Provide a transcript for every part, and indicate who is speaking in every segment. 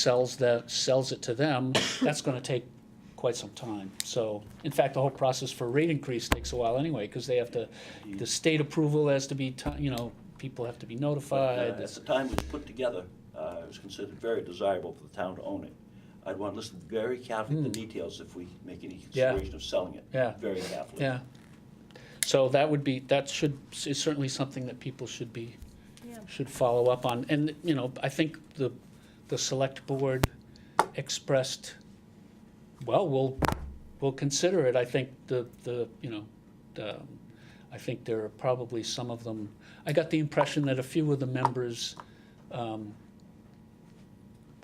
Speaker 1: sells that, sells it to them, that's gonna take quite some time. So, in fact, the whole process for rate increase takes a while anyway, because they have to, the state approval has to be, ti- you know, people have to be
Speaker 2: But, uh,
Speaker 1: notified.
Speaker 2: At the time it was put together, uh, it was considered very desirable for the town to own it. I'd want to listen very carefully to the details if we make any
Speaker 1: Hmm. Yeah.
Speaker 2: consideration of selling it.
Speaker 1: Yeah.
Speaker 2: Very carefully.
Speaker 1: Yeah. So that would be, that should, is certainly something that people should be,
Speaker 3: Yeah.
Speaker 1: should follow up on. And, you know, I think the, the select board expressed, well, we'll, we'll consider it. I think the, the, you know, the, I think there are probably some of them, I got the impression that a few of the members um,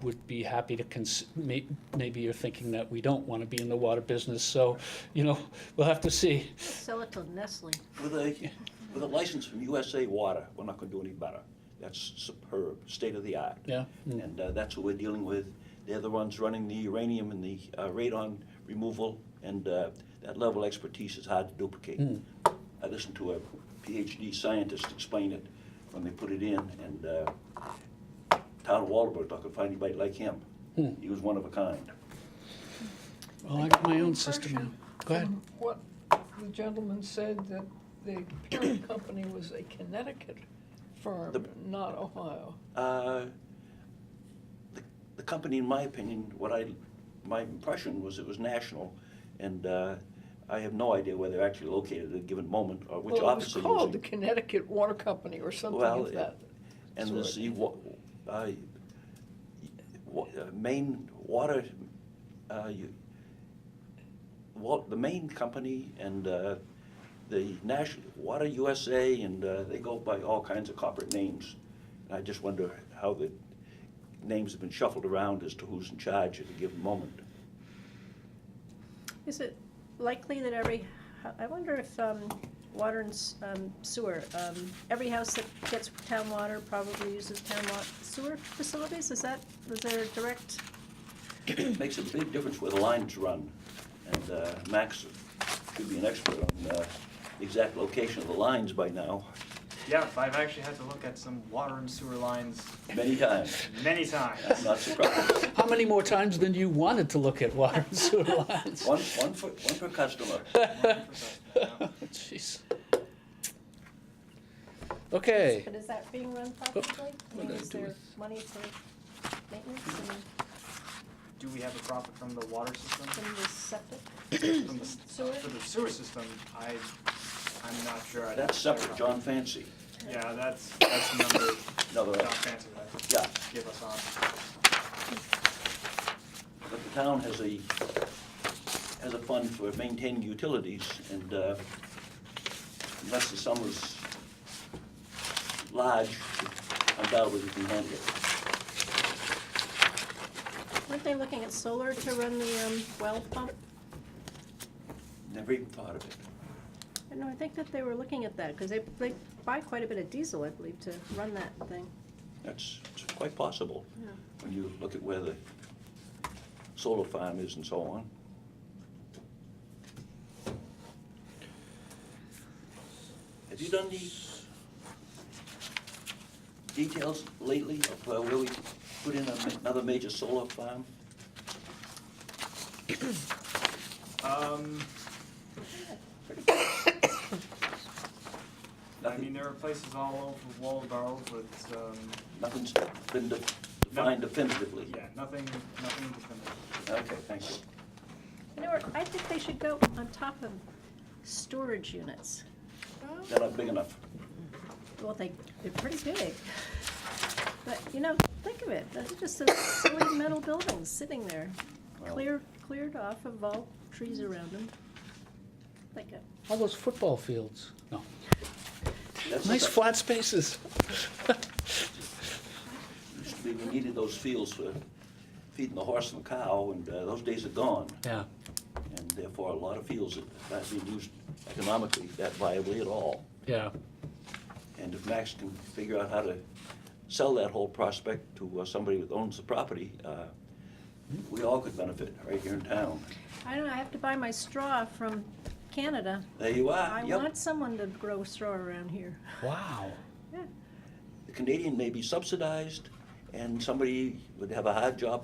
Speaker 1: would be happy to cons, may- maybe you're thinking that we don't want to be in the water business, so, you know, we'll have to see.
Speaker 3: Sell it to Nestle.
Speaker 2: With a, with a license from USA Water, we're not going to do any better. That's superb, state of the art.
Speaker 1: Yeah. Mm.
Speaker 2: And uh, that's what we're dealing with. They're the ones running the uranium and the uh, radon removal, and uh, that level of expertise is hard to duplicate.
Speaker 4: Hmm.
Speaker 2: I listened to a PhD scientist explain it when they put it in, and uh, town of Waldenboro, I could find anybody like him.
Speaker 4: Hmm.
Speaker 2: He was one of a kind.
Speaker 1: Well, I got my own system now. Go ahead.
Speaker 4: From What the gentleman said, that the parent company was a Connecticut firm,
Speaker 2: The-
Speaker 4: not Ohio.
Speaker 2: Uh, The the company, in my opinion, what I, my impression was it was national, and uh, I have no idea where they're actually located at a given moment, or which
Speaker 4: Well, it was
Speaker 2: office they're using.
Speaker 4: called the Connecticut Water Company or something
Speaker 2: Well,
Speaker 4: of that.
Speaker 2: And
Speaker 4: sort.
Speaker 2: this, you wa- uh, wa- uh, main water, uh, you, wa- the main company and, uh, the national, Water USA, and, uh, they go by all kinds of corporate names. And I just wonder how the names have been shuffled around as to who's in charge at a given moment.
Speaker 3: Is it likely that every, I wonder if, um, water and s- um, sewer, um, every house that gets town water probably uses town wa- sewer facilities? Is that, is there a direct,
Speaker 2: It Makes a big difference where the lines run, and, uh, Max should be an expert on, uh, the exact location of the lines by now,
Speaker 5: Yeah, I've actually had to look at some water and sewer lines
Speaker 2: many times.
Speaker 5: many times.
Speaker 2: I'm not surprised.
Speaker 1: How many more times than you wanted to look at water and sewer lines?
Speaker 2: One, one for, one per customer.
Speaker 1: Jeez. Okay,
Speaker 3: but is that being run properly? I mean, is there money for maintenance
Speaker 5: Do we have a profit from the water system?
Speaker 3: and, and the septic?
Speaker 5: From the,
Speaker 3: Sewer?
Speaker 5: for the sewer system, I, I'm not sure. I'd have
Speaker 2: That's
Speaker 5: to check
Speaker 2: separate,
Speaker 5: on-
Speaker 2: John Fancy.
Speaker 5: Yeah, that's, that's the number
Speaker 2: Another,
Speaker 5: John Fancy would
Speaker 2: yeah,
Speaker 5: give us on.
Speaker 2: but the town has a, has a fund for maintaining utilities, and uh, unless the sum is large, undoubtedly we can handle it.
Speaker 3: Weren't they looking at solar to run the, um, well pump?
Speaker 2: Never even thought of it.
Speaker 3: No, I think that they were looking at that, because they, they buy quite a bit of diesel, I believe, to run that thing.
Speaker 2: That's it's quite possible,
Speaker 3: Yeah.
Speaker 2: when you look at where the solar farm is and so on. Have you done the details lately of uh, where we put in a- another major solar farm?
Speaker 5: Um, I mean,
Speaker 2: Nothing,
Speaker 5: there are places all over Waldorf with, um,
Speaker 2: nothing's been de- defined definitively.
Speaker 5: yeah, nothing, nothing definitive.
Speaker 2: Okay, thank you.
Speaker 3: You know, where I think they should go on top of storage units.
Speaker 2: They're not big enough.
Speaker 3: Well, they, they're pretty big. But, you know, think of it, that's just a silly metal building sitting there,
Speaker 2: Well-
Speaker 3: clear, cleared off of all trees around them. Like uh, a,
Speaker 1: all those football fields. No,
Speaker 2: That's the
Speaker 1: nice
Speaker 2: stuff-
Speaker 1: flat spaces.
Speaker 2: Used to be we needed those fields for feeding the horse and the cow, and uh, those days are gone.
Speaker 1: Yeah,
Speaker 2: And therefore, a lot of fields are not being used economically that viably at all.
Speaker 1: yeah.
Speaker 2: And if Max can figure out how to sell that whole prospect to uh, somebody that owns the property, uh, we all could benefit right here in town.
Speaker 3: I don't know, I have to buy my straw from Canada.
Speaker 2: There you
Speaker 3: I
Speaker 2: are, Ah, yep.
Speaker 3: want someone to grow straw around here.
Speaker 1: Wow.
Speaker 3: Yeah.
Speaker 2: The Canadian may be subsidized, and somebody would have a hard job